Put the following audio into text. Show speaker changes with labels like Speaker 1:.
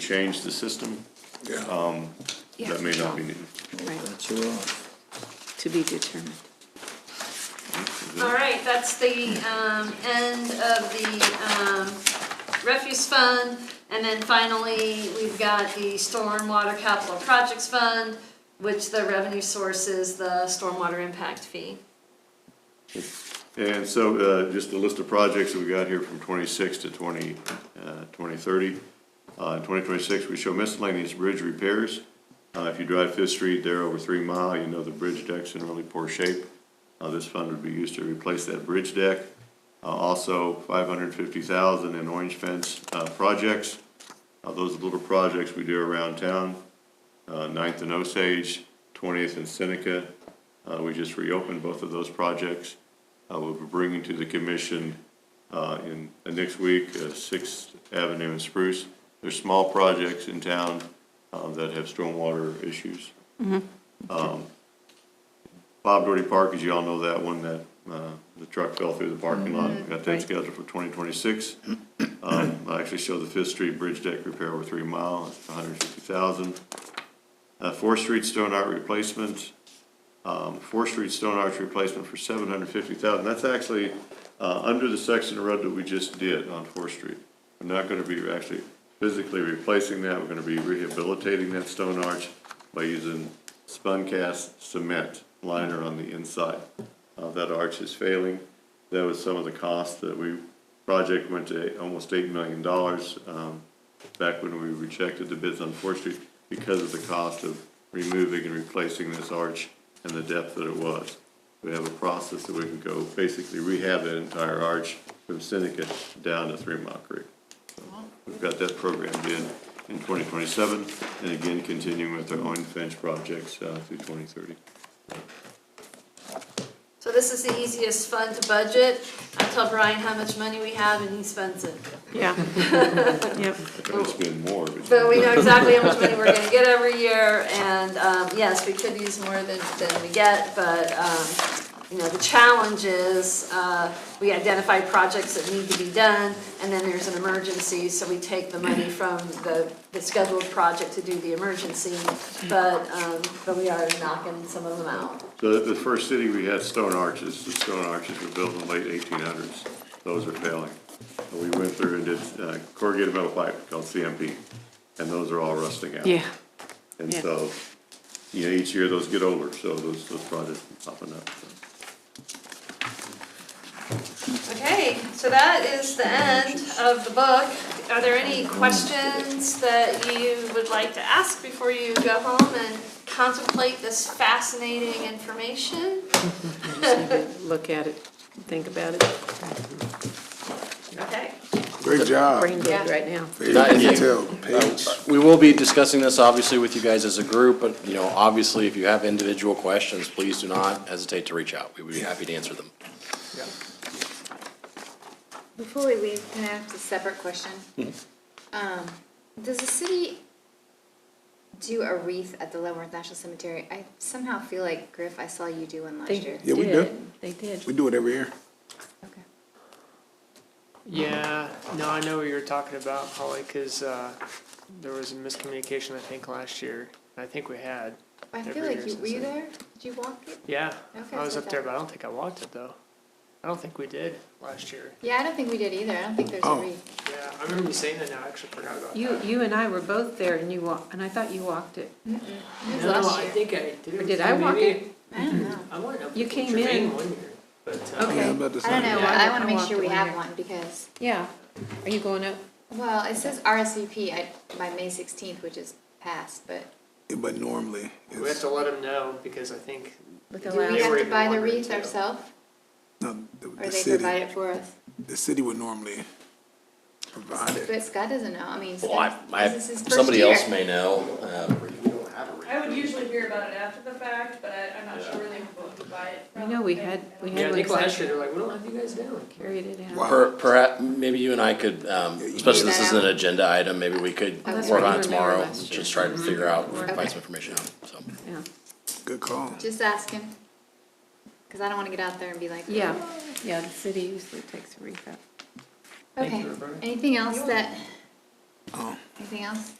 Speaker 1: change the system, um,
Speaker 2: Yeah.
Speaker 1: that may not be needed.
Speaker 2: That's you off.
Speaker 3: To be determined.
Speaker 4: All right, that's the um, end of the um, refuse fund. And then finally, we've got the stormwater capital projects fund, which the revenue source is the stormwater impact fee.
Speaker 1: And so, uh, just the list of projects that we got here from twenty-six to twenty, uh, twenty thirty. Uh, in twenty twenty-six, we show miscellaneous bridge repairs. Uh, if you drive Fifth Street there over three mile, you know the bridge deck's in really poor shape. Uh, this fund would be used to replace that bridge deck. Uh, also, five hundred fifty thousand in orange fence, uh, projects. Uh, those little projects we do around town. uh, Ninth and Osage, Twentieth and Seneca. Uh, we just reopened both of those projects. Uh, we'll be bringing to the commission, uh, in, uh, next week, uh, Sixth Avenue and Spruce. There's small projects in town, uh, that have stormwater issues. Um, Bob Doherty Park, as you all know that one, that, uh, the truck fell through the parking lot. We Got that
Speaker 3: right.
Speaker 1: scheduled for twenty twenty-six. Um, I actually show the Fifth Street Bridge Deck Repair over three mile, it's hundred and fifty thousand. Uh, Fourth Street Stone Art Replacement, um, Fourth Street Stone Arch replacement for seven hundred fifty thousand. That's actually, uh, under the section of road that we just did on Fourth Street. We're not gonna be actually physically replacing that, we're gonna be rehabilitating that stone arch by using spun cast cement liner on the inside. Uh, that arch is failing. That was some of the cost that we, project went to eight- almost eight million dollars, um, back when we rejected the bids on Fourth Street because of the cost of removing and replacing this arch and the depth that it was. We have a process that we can go basically rehab that entire arch from Seneca down to Three Mile Creek. We've got that program in, in twenty twenty-seven, and again, continuing with our own fence projects, uh, through twenty thirty.
Speaker 4: So this is the easiest fund to budget. I tell Brian how much money we have and he spends it.
Speaker 3: Yeah. Yep.
Speaker 1: I could spend more, but.
Speaker 4: But we know exactly how much money we're gonna get every year, and, um, yes, we could use more than, than we get, but, um, you know, the challenge is, uh, we identify projects that need to be done, and then there's an emergency, so we take the money from the, the scheduled project to do the emergency, but, um, but we are knocking some of them out.
Speaker 1: So the- the first city we had stone arches, the stone arches were built in the late eighteen hundreds, those are failing. And We went through and did uh, corrugated metal pipe called CMP, and those are all rusting out.
Speaker 3: Yeah.
Speaker 1: And
Speaker 3: yeah.
Speaker 1: so, you know, each year those get older, so those, those projects are popping up.
Speaker 4: Okay, so that is the end of the book. Are there any questions that you would like to ask before you go home and contemplate this fascinating information?
Speaker 3: Look at it, think about it,
Speaker 4: Okay,
Speaker 2: Great job.
Speaker 3: brain dead right now.
Speaker 2: Page detail, page.
Speaker 5: We will be discussing this, obviously, with you guys as a group, but, you know, obviously, if you have individual questions, please do not hesitate to reach out. We would be happy to answer them.
Speaker 6: Before we leave, can I ask a separate question? Um, does the city do a wreath at the Leavenworth National Cemetery? I somehow feel like, Griff, I saw you do one last
Speaker 3: They
Speaker 6: year.
Speaker 2: Yeah, we do.
Speaker 3: did. They did.
Speaker 2: We do it every year.
Speaker 6: Okay.
Speaker 7: Yeah, no, I know what you were talking about, Holly, because there was a miscommunication, I think, last year. I think we had.
Speaker 6: I
Speaker 7: Every
Speaker 6: feel
Speaker 7: year
Speaker 6: like you,
Speaker 7: since
Speaker 6: were you
Speaker 7: then.
Speaker 6: there? Did you walk it?
Speaker 7: Yeah,
Speaker 6: Okay,
Speaker 7: I was
Speaker 6: so
Speaker 7: up there,
Speaker 6: that-
Speaker 7: but I don't think I walked it, though. I don't think we did last year.
Speaker 6: Yeah, I don't think we did either. I don't think there's a
Speaker 2: Oh.
Speaker 6: wreath.
Speaker 7: Yeah, I remember you saying that now, I actually forgot about that.
Speaker 3: You, you and I were both there and you wa, and I thought you walked it.
Speaker 6: It was
Speaker 7: No,
Speaker 6: last
Speaker 7: I
Speaker 6: year.
Speaker 7: think I did.
Speaker 3: Or did I walk
Speaker 7: Maybe-
Speaker 3: it?
Speaker 6: I don't know.
Speaker 7: I went up
Speaker 3: You
Speaker 7: with
Speaker 3: came
Speaker 7: Tremaine
Speaker 3: in.
Speaker 7: one year, but, uh,
Speaker 3: Okay.
Speaker 2: Yeah, about the
Speaker 6: I
Speaker 2: same.
Speaker 6: don't know.
Speaker 3: Yeah,
Speaker 6: I
Speaker 3: I
Speaker 6: wanna
Speaker 3: walked
Speaker 6: make sure
Speaker 3: it
Speaker 6: we
Speaker 3: one
Speaker 6: have
Speaker 3: year.
Speaker 6: one because,
Speaker 3: Yeah. Are you going up?
Speaker 6: well, it says RSVP at, by May sixteenth, which is past, but
Speaker 2: Yeah, But normally,
Speaker 7: We have
Speaker 2: it's,
Speaker 7: to let them know, because I think,
Speaker 3: With
Speaker 6: do
Speaker 3: the
Speaker 6: we
Speaker 3: last,
Speaker 7: were
Speaker 6: have to
Speaker 7: even
Speaker 6: buy the
Speaker 7: wondering
Speaker 6: wreath
Speaker 7: too.
Speaker 6: ourselves?
Speaker 2: no, the
Speaker 6: Or
Speaker 2: the
Speaker 6: they provide
Speaker 2: city,
Speaker 6: it for us?
Speaker 2: the city would normally provide it.
Speaker 6: But Scott doesn't know. I mean,
Speaker 5: Well, I,
Speaker 6: Scott,
Speaker 5: I,
Speaker 6: this is his first
Speaker 5: somebody else
Speaker 6: year.
Speaker 5: may know, uh,
Speaker 8: I would usually hear about it after the fact, but I, I'm not sure where they would buy it
Speaker 3: I
Speaker 8: from.
Speaker 3: know we had, we
Speaker 7: yeah, I
Speaker 3: had
Speaker 7: think
Speaker 3: one
Speaker 7: last
Speaker 3: section,
Speaker 7: year, they're like, we don't have you guys down.
Speaker 3: carried it out.
Speaker 2: Wow.
Speaker 5: per, perhaps, maybe you and I could, um, especially this is an agenda item, maybe we could
Speaker 6: Oh, that's
Speaker 5: work
Speaker 3: right,
Speaker 5: on it
Speaker 3: you were there
Speaker 5: tomorrow.
Speaker 3: last year.
Speaker 5: Just try to figure out,
Speaker 3: Okay.
Speaker 5: find some information out, so.
Speaker 3: Yeah.
Speaker 2: Good call.
Speaker 6: Just ask him, because I don't want to get out there and be like,
Speaker 3: Yeah, yeah, the city usually takes a recap.
Speaker 7: Thank
Speaker 6: Okay,
Speaker 7: you, Roberta.
Speaker 6: anything else that
Speaker 2: Oh.
Speaker 6: Anything else?